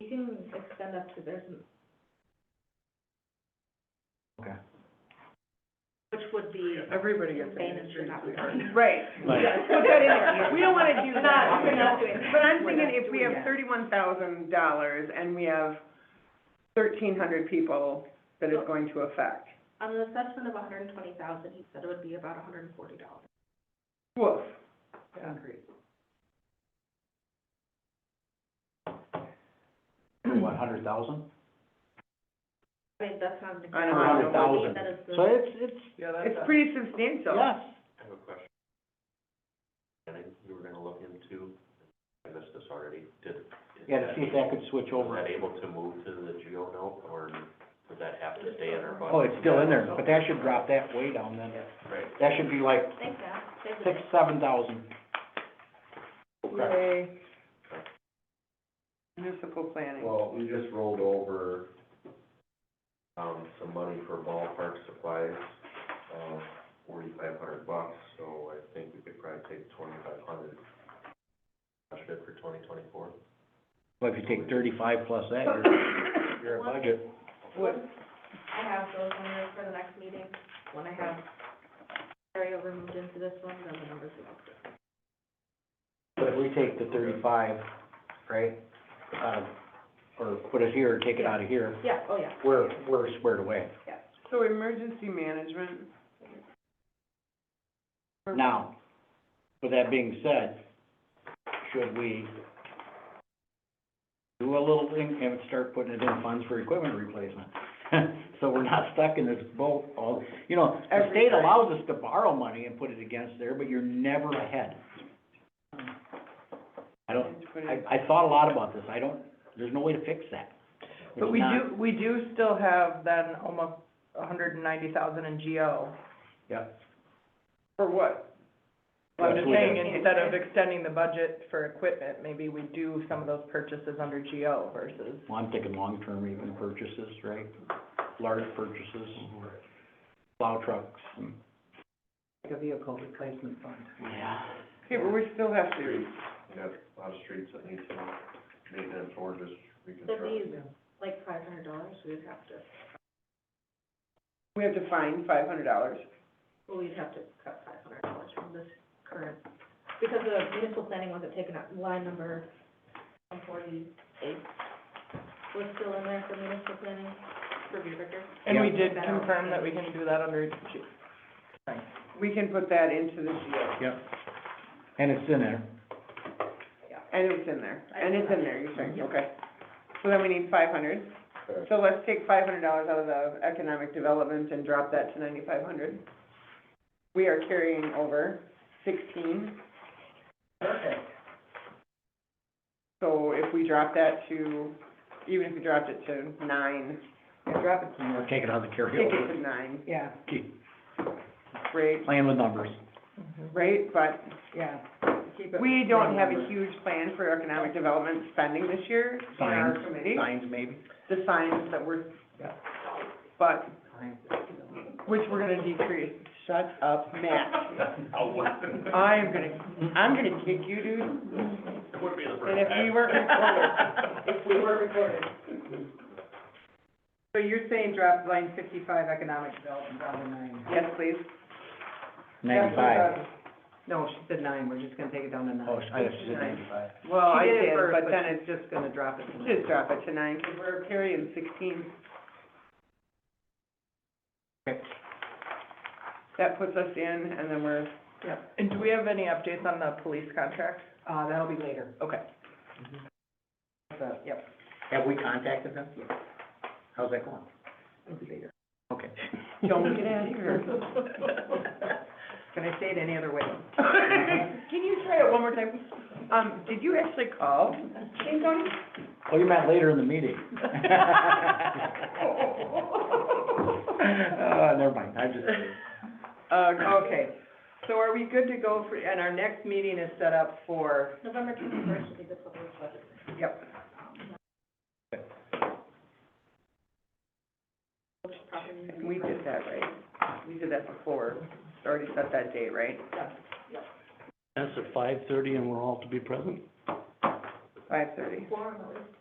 You can extend up to, there's, n- Okay. which would be Everybody gets insane it. if you're not recording. Right, Like- yeah, put that in there, we don't wanna do We're that. not- we're not doing that. But I'm We're thinking not if we doing have that. thirty-one thousand dollars and we have thirteen hundred people that it's going to affect, On an assessment of hundred and twenty thousand, he said it would be about hundred and forty dollars. woof. what, hundred thousand? I mean, that's not an. I exact know, Or I hundred know. number, he thousand? said it's the- So it's, it's, Yeah, that's. It's pretty substantial. I yes. have a question. And I, you were gonna look into, I missed this already, did. is Yeah, to see if that could switch Was over. that able to move to the geo note, or does that have to stay in our budget? Oh, it's still in there, but that should drop that way down then. Right. That should be like Thank God, save the six, day. seven thousand. Yay. Municipal planning. Well, we just rolled over, um, some money for ballpark supplies, uh, forty-five hundred bucks, so I think we could probably take twenty-five hundred. Budget for twenty twenty-four. Well, if you take thirty-five plus that, you're, you're at budget. What- I have those numbers for the next meeting, when I have carryover moved into this one, then the numbers will look different. But if we take the thirty-five, right, uh, or put it here, or take it out of here, Yeah, oh, yeah. we're, we're squared away So emergency management. now. With that being said, should we do a little thing and start putting it in funds for equipment replacement? So we're not stuck in this boat all, you know, the Every state time. allows us to borrow money and put it against there, but you're never ahead. I don't, I, I thought a lot about this, I don't, there's no way to fix that. But It's we not- do, we do still have then almost a hundred and ninety thousand in GO. Yep. For what? Well, I'm just we saying, don't- instead of extending the budget for equipment, maybe we do some of those purchases under GO versus. Well, I'm thinking long-term even purchases, right? Large purchases, plow trucks and, Like a vehicle replacement fund. yeah. Okay, but we still have to, Streets, we got a lot of streets that need some maintenance or just If reconstruction. these, like five hundred dollars, we'd have to, we have to find five hundred dollars. well, we'd have to cut five hundred dollars from this current, because the municipal planning wasn't taken up, line number one forty-eight was still in there for municipal planning, for Beaverton. And we did Yeah. confirm that we can do that under G, We can put that into the GO, Yep. And it's in there. and it's in there, and it's in there, you're saying, okay. So then we need five hundred, so let's take five hundred dollars out of the economic development and drop that to ninety-five hundred. We are carrying over sixteen. Perfect. So if we drop that to, even if we dropped it to nine, Drop it We're taking out the take it carryover. to nine, Yeah, Keep right, Playing with numbers. Mm-hmm. right, but yeah. We don't have a huge plan for economic development spending this year in our Signs. committee, Signs maybe. the signs that we're, but, which we're gonna decrease. Shut up, Matt. I am gonna, I'm gonna kick you, dude. And if we weren't recorded, if we weren't recorded. So you're saying drop line fifty-five economic development down to nine? Yes, please. Ninety-five. No, she said nine, we're just gonna take it down to nine. Oh, I just said ninety-five. Well, I She did it did, first, but but then it's Just gonna drop it to nine. just drop it to nine, because we're carrying sixteen. Okay. That puts us in, and then we're, Yep. And do we have any updates on the police contract? Uh, that'll be later. Okay. Yep. Have we contacted them? How's that going? Okay. don't get out of here. Can I say it any other way? Can you try it one more time? Um, did you actually call King County? Well, you meant later in the meeting. Uh, never mind, I just, Uh, Okay, so are we good to go for, and our next meeting is set up for, November twenty-first would be the public budget. yep, which probably means- We did that, right? We did that before, already set that date, right? That's at five thirty and we're all to be present? Five thirty. Forum at least.